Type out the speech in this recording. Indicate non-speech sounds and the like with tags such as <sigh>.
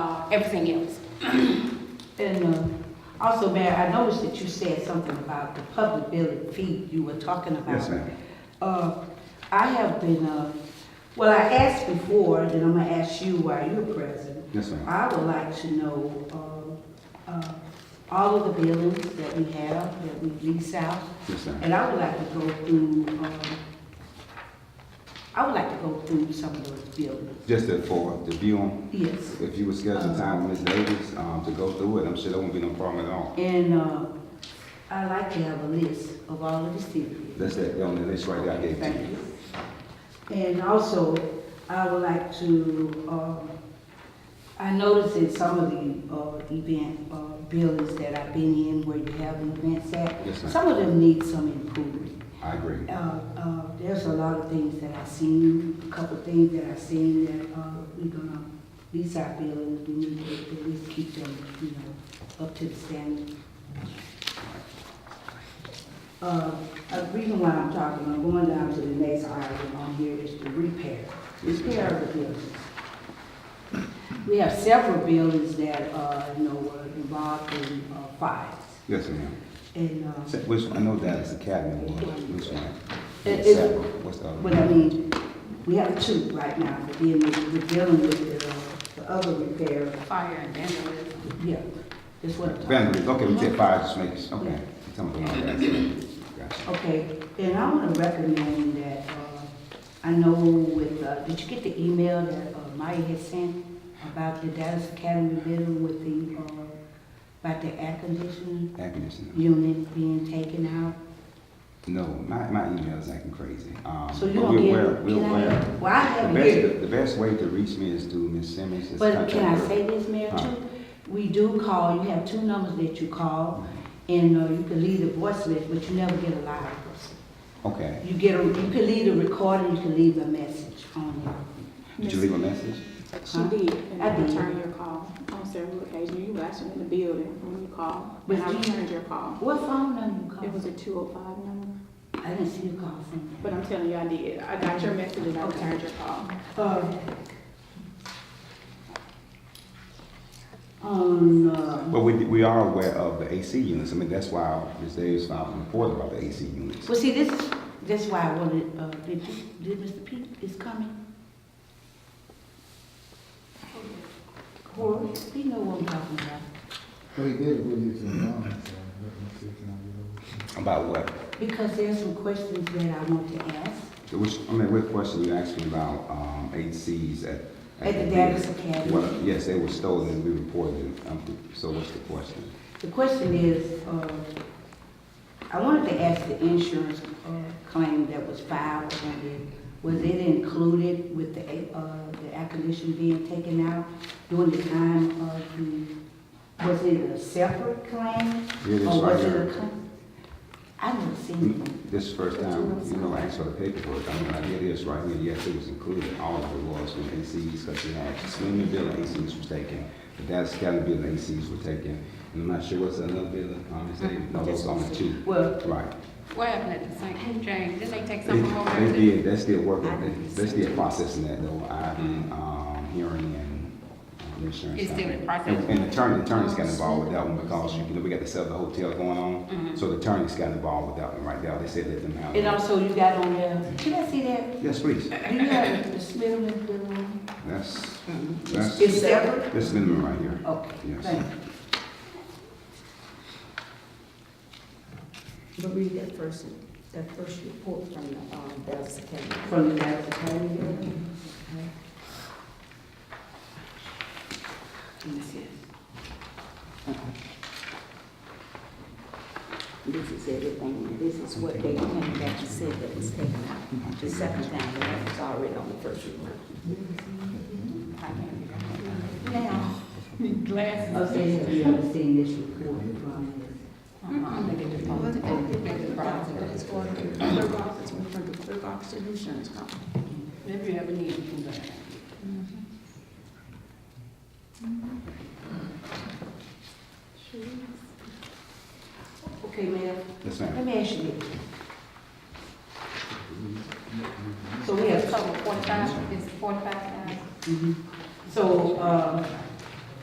uh, everything else. And uh, also, Mayor, I noticed that you said something about the public building fee you were talking about. Yes, ma'am. Uh, I have been, uh, well, I asked before, and I'm gonna ask you while you're present. Yes, ma'am. I would like to know uh, uh, all of the buildings that we have, that we lease out. Yes, ma'am. And I would like to go through, um, I would like to go through some of those buildings. Just that for the view on, Yes. if you would schedule time with Ms. Davis, um, to go through it, I'm sure there won't be no problem at all. And uh, I'd like to have a list of all of the cities. That's that, on the list right there I gave to Thank you. you. And also, I would like to, um, I noticed in some of the uh, event uh, buildings that I've been in where you have events at, Yes, ma'am. some of them need some improvement. I agree. Uh, uh, There's a lot of things that I seen, a couple things that I seen that uh, we gonna, these are buildings, we need to at least keep them, you know, up to the standard. Uh, A reason why I'm talking, I'm going down to the next item on here is the repair, repair of the buildings. We have several buildings that, uh, you know, were involved in uh, fires Yes, ma'am. and. uh, So Which, I know Dallas Academy one, which one? It- it- Several. What's the other? But I mean, we have two right now, but then we- we're dealing with the, uh, the other repair, Fire and vandalism. yeah, that's what I'm talking about. Vandalism, okay, we said five, just make, okay. You Tell me the one that's- gotcha. Okay, then I wanna recommend that, uh, I know with, uh, did you get the email that uh, Maya had sent about the Dallas Academy building with the, uh, about the air conditioning Air conditioning. unit being taken out? No, my, my email is acting crazy. Um, So you but don't we're get- aware, we're can I- aware. Well, I The have it here. best, the best way to reach me is through Ms. Simmons. It's But can I contact her. say this, Mayor, Huh. too? We do call, you have two numbers that you call, and uh, you can leave a voice message, but you never get a live person. Okay. You get, a you can leave a recording, you can leave a message on Did you leave a message? She Huh? did, and I I did. returned your call on several occasions. You were actually in the building when you called, But and I you- returned your it. call. What phone number you It was call? a two oh five number, I didn't see you call from. but I'm telling you, I did. I got your message and I returned your call. Uh, On, uh, But we, we are aware of the AC units. I mean, that's why Ms. Davis filed a report about the AC units. well, see, this, that's why I wanted, uh, did, did Mr. Pete is coming? Corey, he know what I'm talking about. Well, he did give you some wrong, so let me see if I can About what? Because there's some questions that I want to ask Which, I mean, what question you asking about, um, ACs at? at the Davis Academy. Well, yes, they were stolen and we reported it. Um, So what's the question? The question is, uh, I wanted to ask the insurance uh, claim that was filed on it, was it included with the, a- uh, the air conditioning being taken out during the time of the, was it a separate claim? Here it is Or Oh, was right it here. Mm-hmm. a claim? I never seen it. This is first time, you know, I asked for the paperwork, I mean, I did this right here, yes, it was included, all of it was with ACs, because you had swimming building ACs was taken, the Dallas County building ACs were taken, and I'm not sure what's another building, um, is they, Mm-hmm. no, those are the two. Well, Right. What happened at the St. James? Didn't they take They something over they there too? did, they're still working, they- they're still processing that though, I've been, um, hearing and um, insurance. It's still in company. process. And- And attorney, attorneys got involved with that one because, you know, we got the sell the hotel going on, Mm-hmm. so the attorneys got involved with that one right there, they said let them have and it. also you got on there, can I see that? Yes, please, Do you have the Smithman building? that's, that's. It's separate? This minimum right here. Okay, Mm-hmm. Yes. thank But read that first, that first report from the, um, Dallas Academy. you. From the Dallas Academy building? Let me see. This is everything, this is what they came back and said that was taken out, the second time, but it was already on the first report. Now, Need <laughs> Glasses. I said, you haven't seen this report from Uh-uh, they get the phone, they get the phone. It's for the clerk office, we for the clerk office and insurance company. If you ever need, you can go there. Okay, ma'am, Yes, ma'am. let me ask you this. So we have, Cover forty-five, it's forty-five thousand. mhm. so, uh,